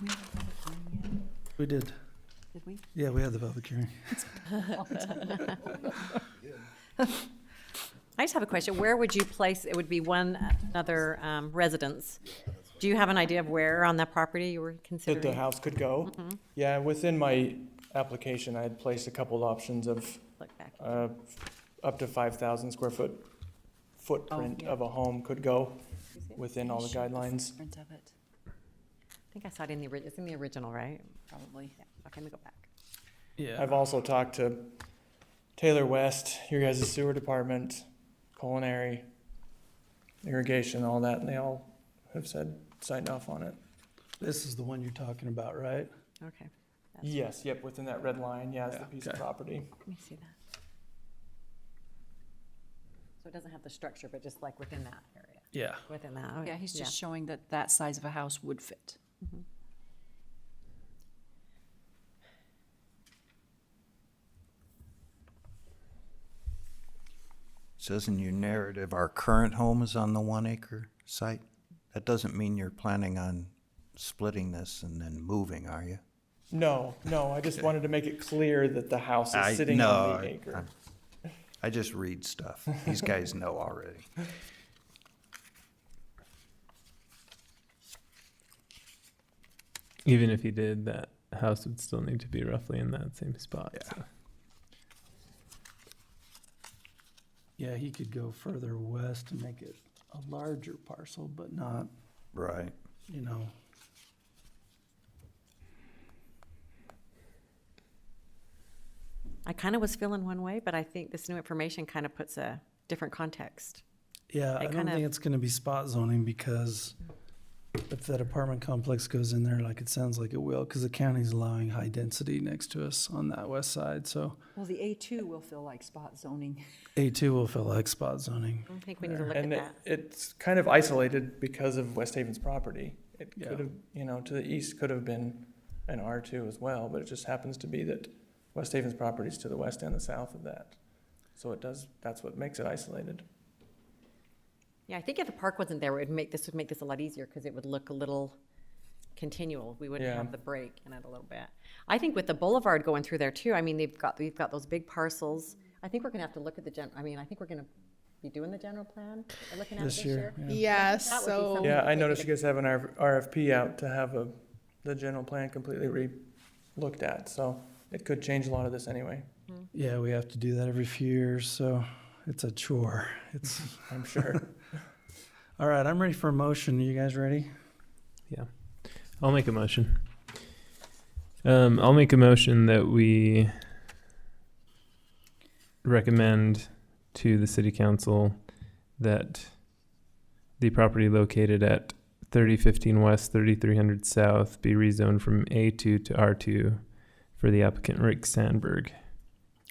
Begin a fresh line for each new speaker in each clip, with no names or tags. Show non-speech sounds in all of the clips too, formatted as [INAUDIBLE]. we have a public hearing
We did.
yet? Did we?
Yeah, we had the public hearing.
I just have a question. Where would you place, it would be one other um, residence. Do you have an idea of where on that property you were
That the
considering?
house could go? Yeah, within my application, I had placed a couple options of
Look back.
uh, up to 5,000 square foot footprint
yeah.
of a home could go within all the guidelines.
Print of it,
I think I saw it in the, ori- it's in the original, right?
probably.
Yeah, okay, let me go back.
Yeah.
I've also talked to Taylor West, your guys' sewer department, culinary, irrigation, all that, and they all have said, signed off on it.
This is the one you're talking about, right?
Okay, That's-
Yes, yep, within that red line, yeah, it's the
Yeah,
piece of
okay.
property.
let me see that. So it doesn't have the structure, but just like within that area,
Yeah.
within that. oh,
Yeah, he's just showing that that size of a house would fit.
Says in your narrative, our current home is on the one acre site. That doesn't mean you're planning on splitting this and then moving, are you?
No, no, I just wanted to make it clear that the house
I-
is sitting
no,
on the
I-
acre.
I'm- I just read stuff. These guys know already.
Even if you did, that house would still need to be roughly in that same spot.
Yeah.
so.
Yeah, he could go further west and make it a larger parcel, but not,
Right.
you know,
I kind of was feeling one way, but I think this new information kind of puts a different context.
yeah,
I
I don't
kinda-
think it's gonna be spot zoning because if that apartment complex goes in there like it sounds like it will, because the county's allowing high density next to us on that west side, so
Well, the A2 will feel like spot zoning.
A two will feel like spot zoning.
I think we need to look at
And it,
that.
it's kind of isolated because of West Haven's property. It
Yeah.
could have, you know, to the east could have been an R two as well, but it just happens to be that West Haven's property is to the west and the south of that. So it does, that's what makes it isolated.
Yeah, I think if the park wasn't there, it would make, this would make this a lot easier because it would look a little continual. We wouldn't
Yeah.
have the break in it a little bit. I think with the boulevard going through there too, I mean, they've got, they've got those big parcels. I think we're gonna have to look at the gen, I mean, I think we're gonna be doing the general plan, or looking at it
This
this year.
year, yeah.
Yeah,
That would be something
so
Yeah,
that
I
they
noticed
could-
you guys have an R- RFP out to have a, the general plan completely re-looked at, so it could change a lot of this anyway,
Yeah, we have to do that every few years, so it's a chore. It's,
I'm sure.
all right, I'm ready for a motion. You guys ready?
I'll make a motion. Um, I'll make a motion that we recommend to the city council that the property located at thirty fifteen west, thirty three hundred south be rezoned from A two to R two for the applicant Rick Sandberg.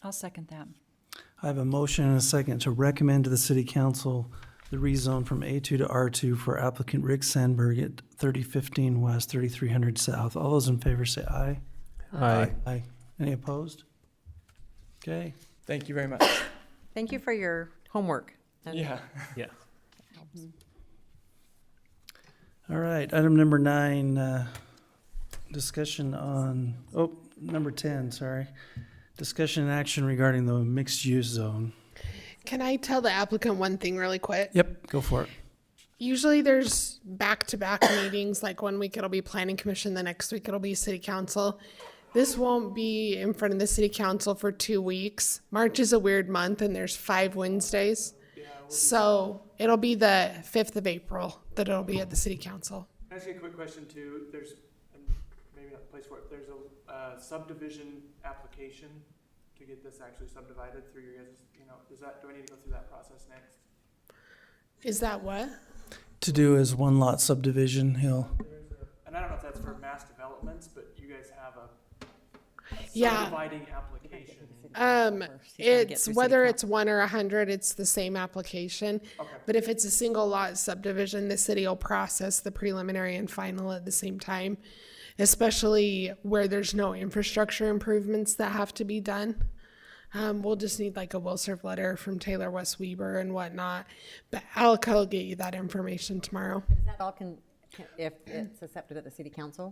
I'll second that.
I have a motion and a second to recommend to the city council the rezone from A2 to R2 for applicant Rick Sandberg at 3015 West, 3300 South. All those in favor say aye.
Aye.
Aye. Any opposed? Okay,
Thank you very much.
Thank you for your homework. and-
Yeah.
all right. Item number nine, uh, discussion on, oh, number 10, sorry. Discussion and action regarding the mixed-use zone.
can I tell the applicant one thing really quick?
Yep, go for it.
Usually there's back-to-back [COUGHS] meetings, like one week it'll be planning commission, the next week it'll be city council. This won't be in front of the city council for two weeks. March is a weird month and there's five Wednesdays. So it'll be the fifth of April that it'll be at the city council.
Can I ask you a quick question too? There's, and maybe not the place for it, there's a uh, subdivision application to get this actually subdivided through your guys', you know, does that, do I need to go through that process next?
Is that what?
To do is one lot subdivision, he'll,
And I don't know if that's for mass developments, but you guys have a
Yeah.
subdividing application.
first, you gotta
Um,
get
it's
through city
whether
council.
it's one or a hundred, it's the same application. But if it's a single lot subdivision, the city will process the preliminary and final at the same time, especially where there's no infrastructure improvements that have to be done. Um, we'll just need like a will serve letter from Taylor West Weber and whatnot, but Alec will get you that information tomorrow.
Is that all can, can- if it's accepted at the city council?